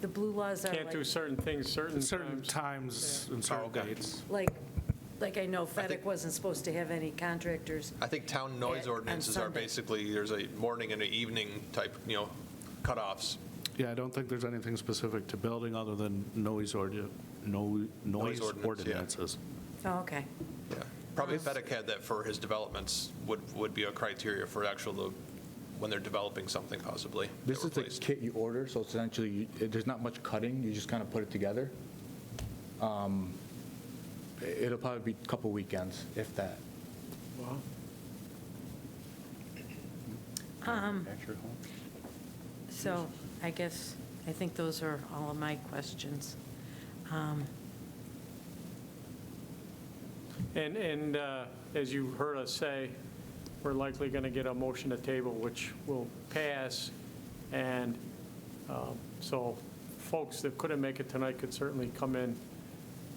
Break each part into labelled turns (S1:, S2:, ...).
S1: the blue laws are
S2: Can't do
S1: like,
S2: certain things certain
S3: Certain
S2: times.
S3: times and certain
S4: okay.
S3: dates.
S1: like, like I know FedEc
S4: think-
S1: wasn't supposed to have any contractors.
S4: I think town noise
S1: Yeah, on
S4: ordinances are
S1: Sunday.
S4: basically, there's a morning and an evening type, you know, cutoffs.
S3: Yeah, I don't think there's anything specific to building other than noise ordi- no noise
S4: ordinance, yeah.
S3: ordinances.
S1: Oh, okay.
S4: Yeah. Probably FedEc had that for his developments, would, would be a criteria for actual, the- when they're developing something possibly. that
S5: This
S4: were
S5: is the
S4: placed.
S5: kit you order, so essentially, you- it- there's not much cutting, you just kind of put it together. Um, i- It'll probably be a couple weekends, if that.
S1: So I guess, I think those are all of my questions. Um,
S2: And, and uh, as you heard us say, we're likely going to get a motion to table, which will pass. And um, so folks that couldn't make it tonight could certainly come in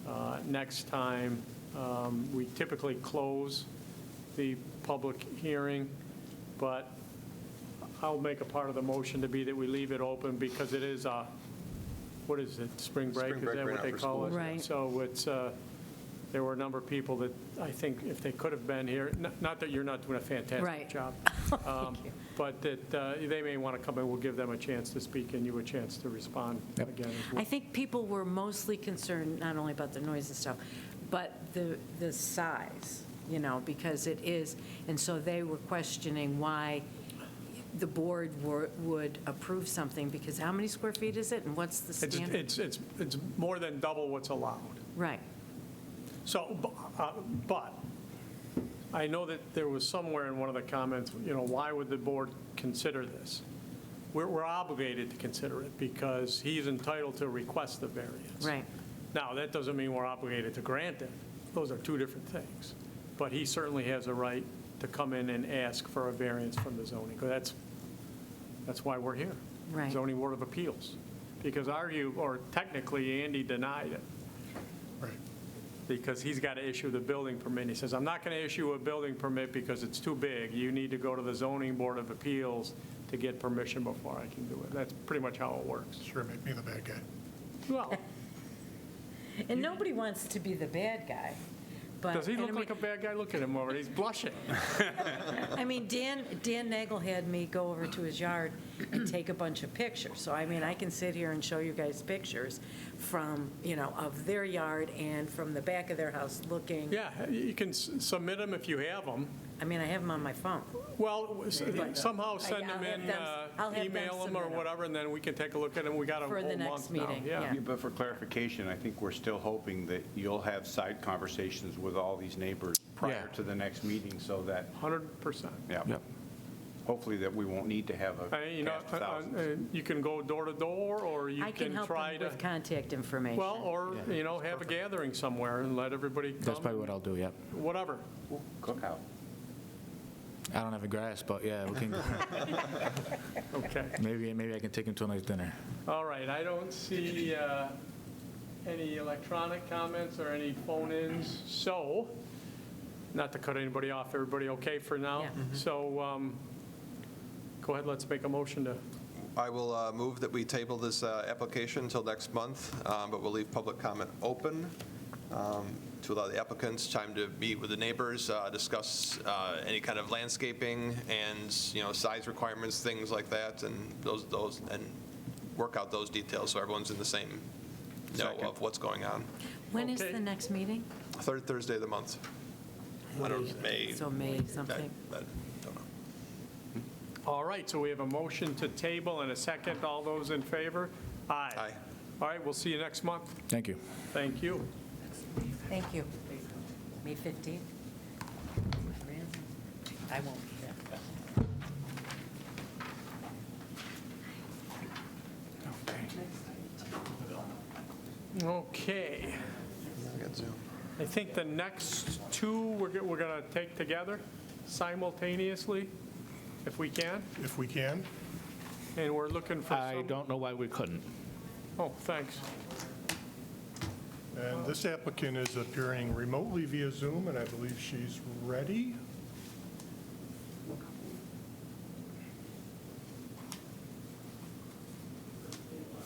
S2: uh, next time. Um, We typically close the public hearing, but I'll make a part of the motion to be that we leave it open because it is a, what is it, spring break?
S4: Spring break
S2: Is that
S4: right
S2: what
S4: now
S2: they
S4: for
S2: call
S1: schools,
S2: it?
S1: yeah. Right.
S2: So it's, uh, there were a number of people that I think if they could have been here, n- not that you're not doing a fantastic
S1: Right.
S2: job. um, But that uh, they may want to come and we'll give them a chance to speak and you a chance to respond again. as
S1: I
S2: well.
S1: think people were mostly concerned, not only about the noise and stuff, but the, the size, you know, because it is, and so they were questioning why the board were- would approve something, because how many square feet is it, and what's the
S2: It's,
S1: standard?
S2: it's, it's, it's more than double what's allowed.
S1: Right,
S2: So, bu- uh, but, I know that there was somewhere in one of the comments, you know, why would the board consider this? We're, we're obligated to consider it because he's entitled to request the variance.
S1: right,
S2: Now, that doesn't mean we're obligated to grant it. Those are two different things. But he certainly has a right to come in and ask for a variance from the zoning, 'cause that's, that's why we're here.
S1: Right.
S2: Zoning Board of Appeals. Because argue, or technically, Andy denied it. Right. Because he's got to issue the building permit. He says, I'm not going to issue a building permit because it's too big. You need to go to the Zoning Board of Appeals to get permission before I can do it. That's pretty much how it works.
S6: Sure, make me the bad guy.
S2: Well,
S1: and nobody wants to be the bad guy, but.
S2: Does he
S1: and I
S2: look
S1: mean-
S2: like a bad guy? Look at him over, there. he's blushing.
S1: I mean, Dan, Dan Nagel had me go over to his yard and take a bunch of pictures. So I mean, I can sit here and show you guys pictures from, you know, of their yard and from the back of their house looking.
S2: Yeah, you can s- submit them if you have them.
S1: I mean, I have them on my phone.
S2: Well, w- s- uh,
S1: But-
S2: somehow
S1: I-
S2: send
S1: I'll
S2: them
S1: have
S2: in,
S1: them-
S2: uh,
S1: I'll have them
S2: email them or
S1: submit 'em.
S2: whatever, and then we can take a look at them. We got a
S1: For the
S2: whole
S1: next
S2: month now.
S1: meeting,
S2: Yeah,
S1: yeah.
S7: Yeah, But for clarification, I think we're still hoping that you'll have side conversations with all these neighbors prior
S3: Yeah.
S7: to the next meeting so that,
S2: 100%.
S7: yeah,
S3: Yep.
S7: hopefully that we won't need to have a
S2: I mean, You know,
S7: cast
S2: uh,
S7: of thousands.
S2: uh, you can go door to door, or you
S1: I can
S2: can
S1: help
S2: try
S1: them
S2: to,
S1: with contact information.
S2: well, or, you know, have a gathering somewhere and let everybody
S5: That's probably
S2: come,
S5: what I'll do, yeah.
S2: whatever.
S7: Cookout.
S5: I don't have a grass, but yeah, we can,
S2: Okay.
S5: maybe, maybe I can take him to a nice dinner.
S2: All right, I don't see uh, any electronic comments or any phone-ins, so, not to cut anybody off, everybody okay for now?
S1: Yeah.
S2: So, um, go ahead, let's make a motion to,
S4: I will uh, move that we table this uh, application until next month, um, but we'll leave public comment open um, to allow the applicants time to meet with the neighbors, uh, discuss uh, any kind of landscaping and, you know, size requirements, things like that, and those, those, and work out those details so everyone's in the same know
S7: Second.
S4: of what's going on.
S1: When is
S2: Okay.
S1: the next meeting?
S4: Third Thursday of the month. I don't, May,
S1: So May something.
S4: I- I don't know.
S2: all right, so we have a motion to table and a second, all those in favor? Aye.
S4: Aye.
S2: All right, we'll see you next month,
S5: Thank you.
S2: thank you.
S1: Thank you. May 15th? I won't be there.
S2: Okay. I think the next two, we're go- we're going to take together simultaneously, if we can,
S6: If we can,
S2: and we're looking for some...
S3: I don't know why we couldn't.
S2: Oh, thanks.
S6: and this applicant is appearing remotely via Zoom, and I believe she's ready.